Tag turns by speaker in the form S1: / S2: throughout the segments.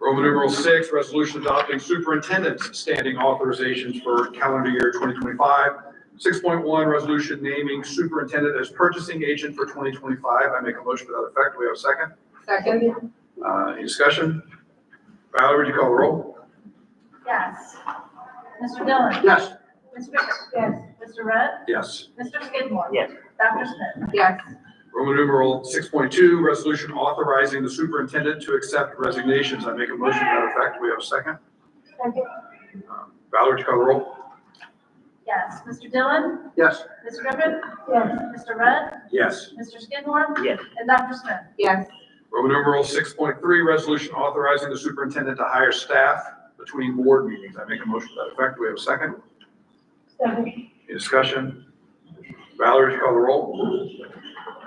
S1: Roman numeral six, resolution adopting superintendent's standing authorizations for calendar year 2025. 6.1, resolution naming superintendent as purchasing agent for 2025. I make a motion to that effect. Do we have a second?
S2: Second?
S1: Uh, Any discussion? Valerie, would you call the roll?
S3: Yes. Mr. Dillon.
S1: Yes.
S3: Mr. Bicker. Yes. Mr. Rudd.
S1: Yes.
S3: Mr. Skidmore.
S4: Yes.
S3: Dr. Smith.
S2: Yes.
S1: Roman numeral 6.2, resolution authorizing the superintendent to accept resignations. I make a motion to that effect. Do we have a second? Uh,
S3: Second.
S1: Valerie, would you call the roll?
S3: Yes. Mr. Dillon.
S1: Yes.
S3: Ms. Griffin. Yes. Mr. Rudd.
S1: Yes.
S3: Mr. Skidmore.
S4: Yes.
S3: And Dr. Smith.
S2: Yes.
S1: Roman numeral six point three, resolution authorizing the superintendent to hire staff between board meetings. I make a motion to that effect. Do we have a second?
S3: Second.
S1: Any discussion? Valerie, would you call the roll?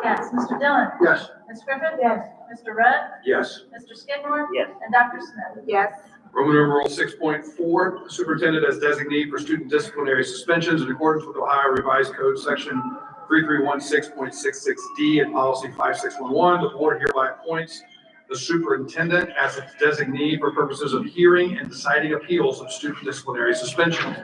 S3: Yes. Mr. Dillon.
S1: Yes.
S3: Ms. Griffin. Yes. Mr. Rudd.
S1: Yes.
S3: Mr. Skidmore.
S4: Yes.
S3: And Dr. Smith.
S2: Yes.
S1: Roman numeral six point four, superintendent as designee for student disciplinary suspensions in accordance with Ohio Revised Code, section three three one six point six six D and policy five six one one. The board hereby appoints the superintendent as its designee for purposes of hearing and deciding appeals of student disciplinary suspension.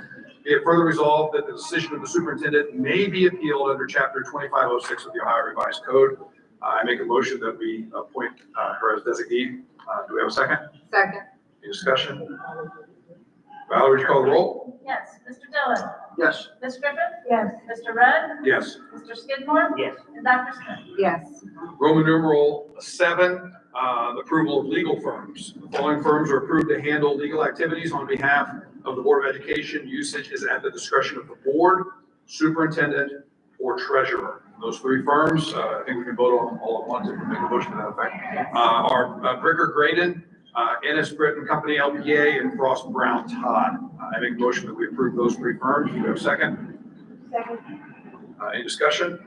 S1: Be it further resolved that the decision of the superintendent may be appealed under chapter twenty-five oh six of the Ohio Revised Code. I make a motion that we appoint uh, her as designee. Uh, Do we have a second?
S2: Second?
S1: Any discussion? Valerie, would you call the roll?
S3: Yes. Mr. Dillon.
S1: Yes.
S3: Ms. Griffin. Yes. Mr. Rudd.
S1: Yes.
S3: Mr. Skidmore.
S4: Yes.
S3: And Dr. Smith.
S2: Yes.
S1: Roman numeral seven, uh, approval of legal firms. The following firms are approved to handle legal activities on behalf of the Board of Education. Usage is at the discretion of the board, superintendent, or treasurer. Those three firms, uh, I think we can vote on them all at once if we make a motion to that effect, uh, are uh, Bricker Graydon, uh, Ennis Britton Company LPA, and Frost Brown Todd. Uh, I make a motion that we approve those three firms. Do you have a second?
S3: Second.
S1: Uh, Any discussion?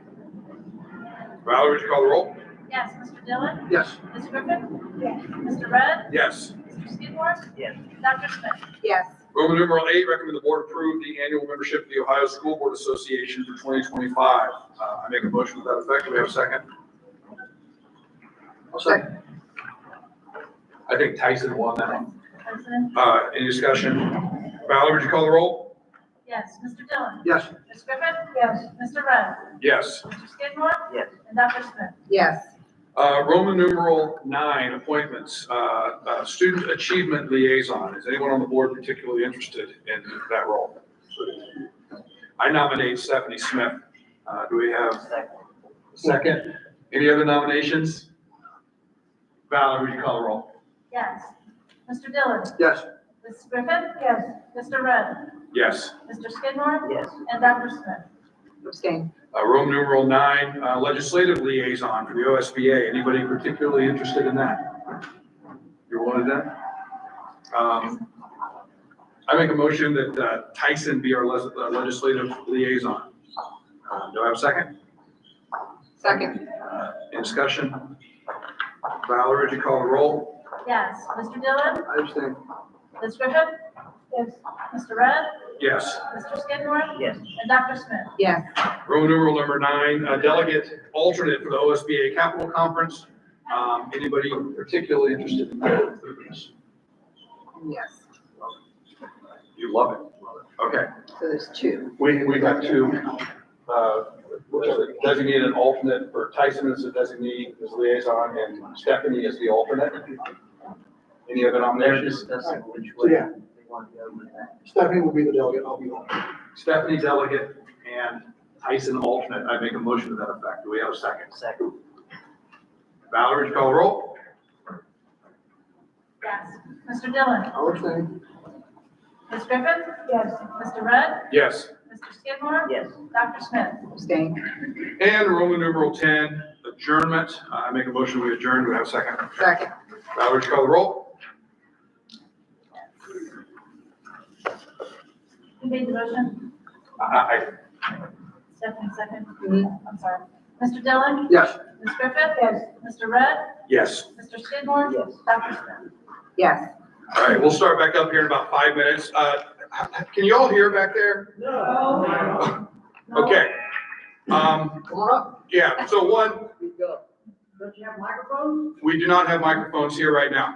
S1: Valerie, would you call the roll?
S3: Yes. Mr. Dillon.
S1: Yes.
S3: Ms. Griffin. Yes. Mr. Rudd.
S1: Yes.
S3: Mr. Skidmore.
S4: Yes.
S3: Dr. Smith.
S2: Yes.
S1: Roman numeral eight, recommend the board approve the annual membership of the Ohio School Board Association for 2025. Uh, I make a motion to that effect. Do we have a second? I'll
S2: second.
S1: I think Tyson won that one.
S3: President.
S1: Uh, Any discussion? Valerie, would you call the roll?
S3: Yes. Mr. Dillon.
S1: Yes.
S3: Ms. Griffin. Yes. Mr. Rudd.
S1: Yes.
S3: Mr. Skidmore.
S4: Yes.
S3: And Dr. Smith.
S2: Yes.
S1: Uh, Roman numeral nine, appointments, Uh, uh, student achievement liaison. Is anyone on the board particularly interested in that role? I nominate Stephanie Smith. Uh, Do we have
S4: Second.
S1: Second. Any other nominations? Valerie, would you call the roll?
S3: Yes. Mr. Dillon.
S1: Yes.
S3: Ms. Griffin. Yes. Mr. Rudd.
S1: Yes.
S3: Mr. Skidmore.
S4: Yes.
S3: And Dr. Smith.
S2: Abstain.
S1: Uh, Roman numeral nine, uh, legislative liaison for the OSBA. Anybody particularly interested in that? You're one of them? Um, I make a motion that uh, Tyson be our les- uh, legislative liaison. Uh, Do I have a second?
S2: Second?
S1: Uh, Any discussion? Valerie, would you call the roll?
S3: Yes. Mr. Dillon.
S1: I understand.
S3: Ms. Griffin. Yes. Mr. Rudd.
S1: Yes.
S3: Mr. Skidmore.
S4: Yes.
S3: And Dr. Smith.
S2: Yes.
S1: Roman numeral number nine, uh, delegate alternate for the OSBA Capital Conference. Um, Anybody particularly interested in that?
S2: Yes.
S1: You love it. Okay,
S2: So there's two.
S1: we, we got two, uh, designated alternate for Tyson as the designee, as liaison, and Stephanie as the alternate. Any other
S4: They're
S1: nominations?
S4: discussing which way they want to go with that.
S5: Stephanie will be the delegate, I'll be on.
S1: Stephanie delegate and Tyson alternate. I make a motion to that effect. Do we have a second?
S4: Second.
S1: Valerie, would you call the roll?
S3: Yes. Mr. Dillon.
S5: I'll abstain.
S3: Ms. Griffin. Yes. Mr. Rudd.
S1: Yes.
S3: Mr. Skidmore.
S4: Yes.
S3: Dr. Smith.
S2: Abstain.
S1: And Roman numeral 10, adjournment. Uh, I make a motion, we adjourn. Do we have a second?
S2: Second?
S1: Valerie, would you call the roll?
S3: Who made the motion?
S1: Aye.
S3: Stephanie, second.
S2: Mhm.
S4: Mm-hmm.
S3: I'm sorry. Mr. Dillon.
S1: Yes.
S3: Ms. Griffin? Yes. Mr. Rudd?
S1: Yes.
S3: Mr. Skidmore?
S4: Yes.
S3: Dr. Smith?
S2: Yes.
S1: All right, we'll start back up here in about five minutes. Uh, Can you all hear back there?
S3: No.
S1: Okay. Um,
S5: Come on up.
S1: Yeah, so one,
S5: Don't you have microphones?
S1: we do not have microphones here right now.